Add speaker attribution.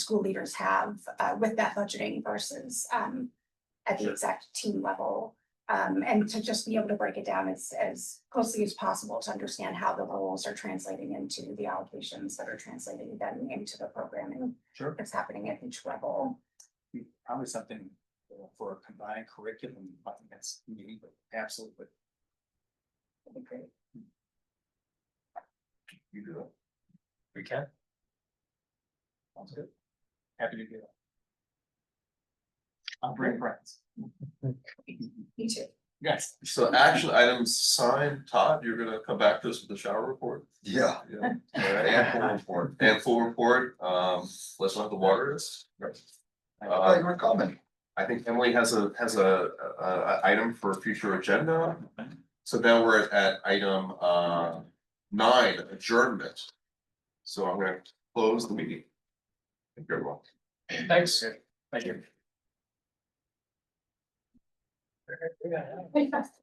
Speaker 1: school leaders have uh with that budgeting versus um at the
Speaker 2: Sure.
Speaker 1: exact team level. Um, and to just be able to break it down as as closely as possible to understand how the roles are translating into the allocations that are translating then into the programming
Speaker 2: Sure.
Speaker 1: that's happening at each level.
Speaker 2: Probably something you know, for a combined curriculum, I think that's needed, but absolutely.
Speaker 1: That'd be great.
Speaker 2: You do it.
Speaker 3: We can.
Speaker 2: Sounds good. Happy to do that. I'll bring friends.
Speaker 1: Me too.
Speaker 2: Yes.
Speaker 4: So action items signed, Todd, you're gonna come back to us with the shower report? Yeah. And full report. And full report, um, let's not the water is.
Speaker 5: Oh, you were coming.
Speaker 4: I think Emily has a, has a, a, a item for future agenda. So now we're at item, uh, nine, adjournment. So I'm gonna close the meeting. Thank you, everyone.
Speaker 3: Thanks.
Speaker 2: Thank you.